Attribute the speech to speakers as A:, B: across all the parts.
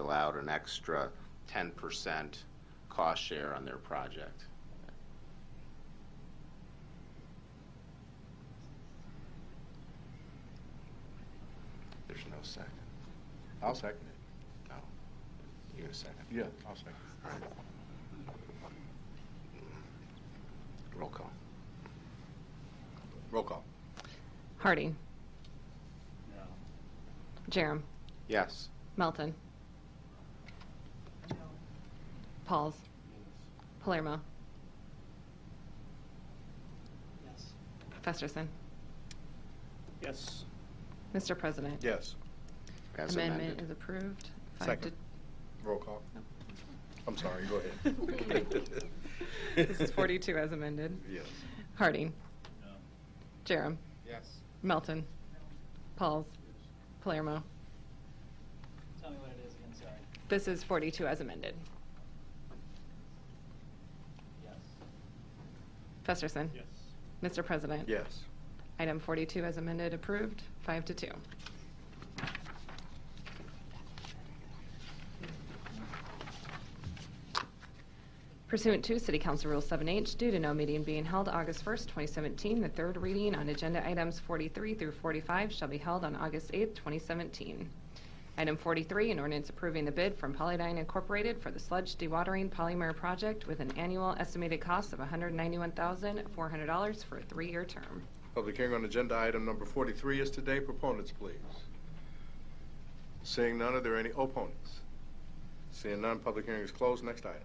A: dole out an extra 10% cost share on their project. There's no second.
B: I'll second it.
A: No. You're going to second.
B: Yeah, I'll second
A: Roll call.
B: it. Roll call.
C: Harding.
D: No.
C: Jerem.
A: Yes.
C: Melton. Pauls. Palermo.
D: Yes.
C: Festerson.
D: Yes.
C: Mr. President.
B: Yes.
A: As
C: Amendment
A: amended.
C: is approved. Five
B: Second.
C: to-
B: Roll call. I'm sorry, go ahead.
C: Okay. This is 42 as amended.
B: Yes.
C: Harding.
D: No.
C: Jerem.
A: Yes.
C: Melton. Pauls. Palermo.
D: Tell me what it is again, sorry.
C: This is 42 as amended.
D: Yes.
C: Festerson. Mr. President.
B: Yes.
C: Item 42 as amended, approved, five to two. Pursuant to City Council Rule 7H, due to no meeting being held August 1st, 2017, the third reading on agenda items 43 through 45 shall be held on August 8th, 2017. Item 43, an ordinance approving the bid from Polydine Incorporated for the sludge dewatering polymer project with an annual estimated cost of $191,400 for a three-year term.
B: Public hearing on agenda item number 43 is today. Proponents, please. Seeing none, are there any opponents? Seeing none, public hearing is closed. Next item.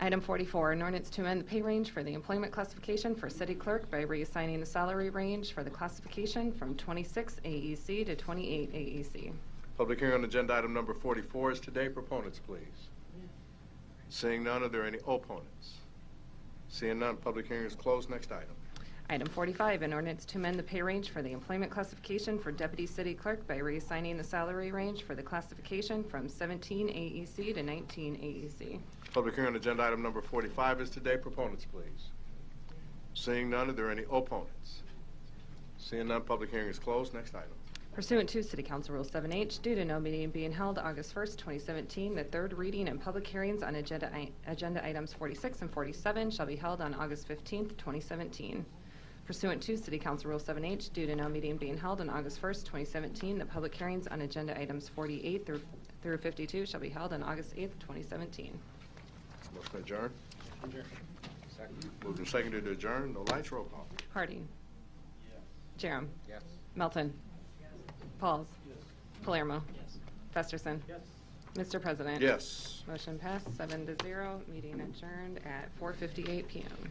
C: Item 44, an ordinance to amend the pay range for the employment classification for city clerk by reassigning the salary range for the classification from 26 AEC to E 28 AEC.
B: Public hearing on agenda item number 44 is today. Proponents, please. Seeing none, are there any opponents? Seeing none, public hearing is closed. Next item.
C: Item 45, an ordinance to amend the pay range for the employment classification for deputy city clerk by reassigning the salary range for the classification from 17 AEC to E 19 AEC.
B: Public hearing on agenda item number 45 is today. Proponents, please. Seeing none, are there any opponents? Seeing none, public hearing is closed. Next item.
C: Pursuant to City Council Rule 7H, due to no meeting being held August 1st, 2017, the third reading and public hearings on agenda i- agenda items 46 and 47 shall be held on August 15th, 2017. Pursuant to City Council Rule 7H, due to no meeting being held on August 1st, 2017, the public hearings on agenda items 48 through through 52 shall be held on August 8th, 2017.
B: Motion adjourned. Moved and seconded to adjourn. No lights. Roll call.
C: Harding.
D: Yes.
C: Jerem.
B: Yes.
C: Melton. Pauls. Palermo.
D: Yes.
C: Festerson.
D: Yes.
C: Mr. President.
B: Yes.
C: Motion passed, seven to zero, meeting adjourned at 4:58 PM.